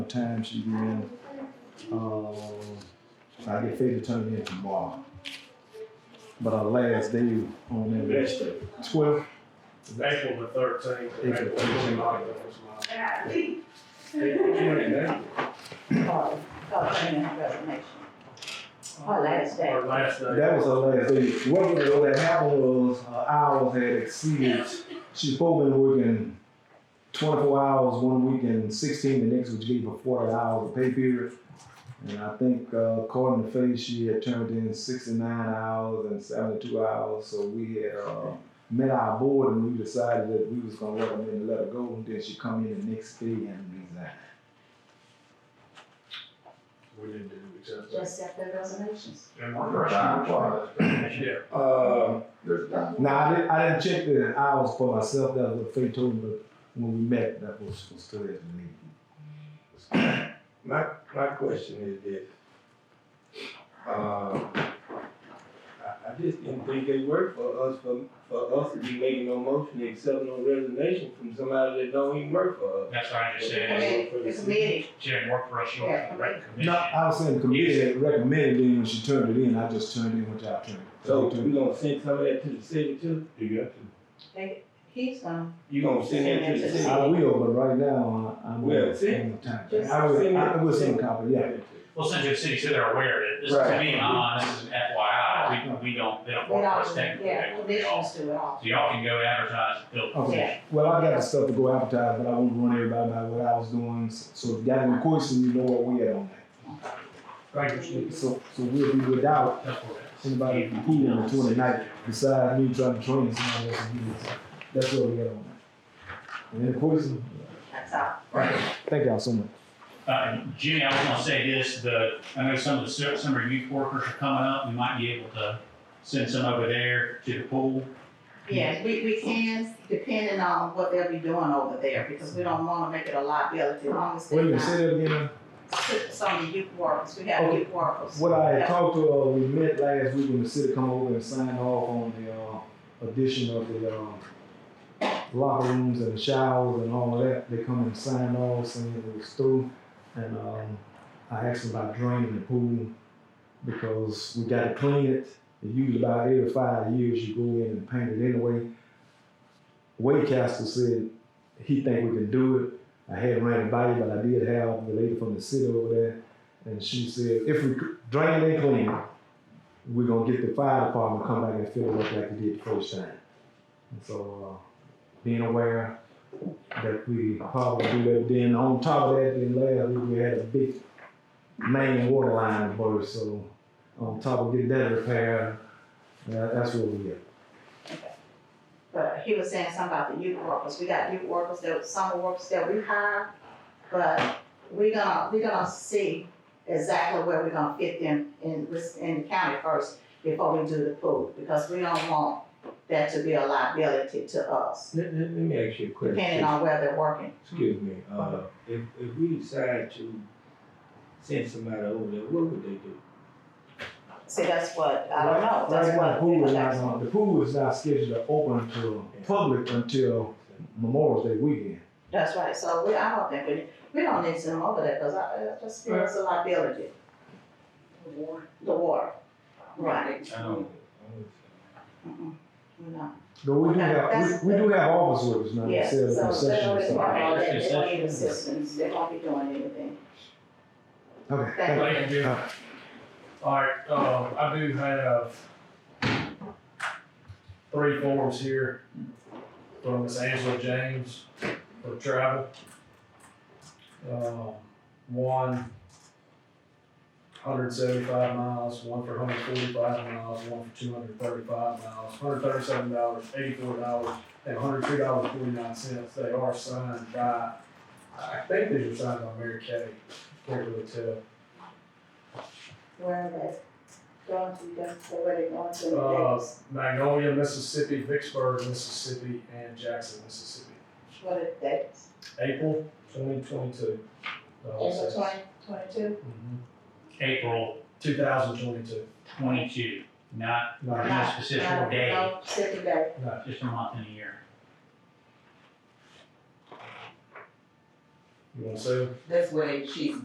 time she in. Um, I get Faith to turn it in tomorrow. But our last day on that was Next day, twelve. April the thirteenth. April 13th. Or, or any resignation. Or last day. Our last day. That was her last day. What, was- what had happened was her hours had exceeded. She's supposed to be working twenty-four hours one week and sixteen the next, which gave her forty hours of pay period. And I think uh, according to Faith, she had turned in sixty-nine hours and seventy-two hours. So we had uh, met our board and we decided that we was gonna recommend to let her go. And then she come in the next day and resign. We didn't do exactly. Just set the resignations. And we're rushing. Yeah. Uh, there's not. Now I didn't, I didn't check the hours for myself. That was what Faith told me. But when we met, that was, was still at the meeting. My, my question is this. Uh, I, I just didn't think it worked for us, for, for us to be making no motion to accept no resignation from somebody that don't even work for us. That's what I The understand. committee, the committee, She didn't work for us, she worked for the rec No, commission. I was saying the committee had recommended it when she turned it in. I just turned in what y'all turned. in. So we gonna send some of that to the city too? You got to. they, he's gonna, You gonna send that to the city? I will, but right now I- I'm Well, on see? the time. I will, I will send a copy. Yeah. Well, since you're city, so they're aware of it, this, to Right. be honest, this is an FYI, we, we don't, they don't they work for us all, technically. yeah, they work for y'all. commissioners do it all. So y'all can go advertise, and build. Okay. Well, I got the stuff to go advertise, but I won't run everybody by what I was doing. So if y'all have any questions, you know what we had on Thank you. that. So, so we'll be without anybody from pool on the 29th. Besides me trying to train someone else to do this. That's what we had on that. And then, of course, That's all. thank y'all so much. Uh, Jimmy, I was gonna say this, the, I know some of the su- summer youth workers are coming up, we might be able to send some over there to the pool. Yes, we, we can, depending on what they'll be doing over there, because we don't wanna make it a liability, as long as Wait a they're minute, not. say that again. Some of the youth workers, we have Okay. youth workers. What I had Yeah. talked to, uh, we met last week when the city come over and signed off on the, uh, addition of the, um, locker rooms and the showers and all that, they come and sign off saying it was through. And, um, I asked them about draining the pool because we gotta clean it. It usually about every five years you go in and paint it anyway. Wade Castle said he think we can do it. I had ran it by you, but I did have the lady from the city over there and she said, if we drain and clean, we're gonna get the fire department to come back and fill it up like we did the first time. And so, uh, being aware that we probably do that, then on top of that, then last week we had a big main water line burst, so on top of getting that repaired, that, that's where we at. But he was saying something about the youth workers, we got youth workers that, summer workers that we hire, but we gonna, we gonna see exactly where we're gonna fit them in, this- in the county first before we do the pool, because we don't want that to be a liability to us, Let, let, let me ask you a question. depending on where they're working. Excuse me, uh, if, if we decide to send somebody over there, what would they do? See, that's what, I don't know, Right that's now, the what. pool is not, on- the pool is not scheduled to open to public until Memorial Day weekend. That's right, so we, I don't think we, we don't need some over there, cause I, I just feel it's a liability. The war. The war, right. Um, Mm-mm. We're not. But we do have, we, we do have office workers now, Yeah, instead of so they concession or always want something. all that, they don't Concession. need assistance, they won't be doing anything. Okay, thank you. Thank you. All right, um, I do have three forms here from Miss Angela James for travel. Um, one hundred seventy-five miles, one for hundred forty-five miles, one for two hundred thirty-five miles, hundred thirty-seven dollars, eighty-four dollars, and hundred two dollars forty-nine cents. They are signed by, I think these are signed by Mary Kay, can't really tell. Where are they going to, just where they going to, Uh, what Magnolia, Mississippi, Vicksburg, Mississippi, and Jackson, Mississippi. are the dates? April twenty twenty-two. April twenty, twenty-two? April Mm-hmm. Two thousand twenty-two. twenty-two, not, not a specific day, No, specific day. No, just a month and a year. You wanna say? That's what they, she's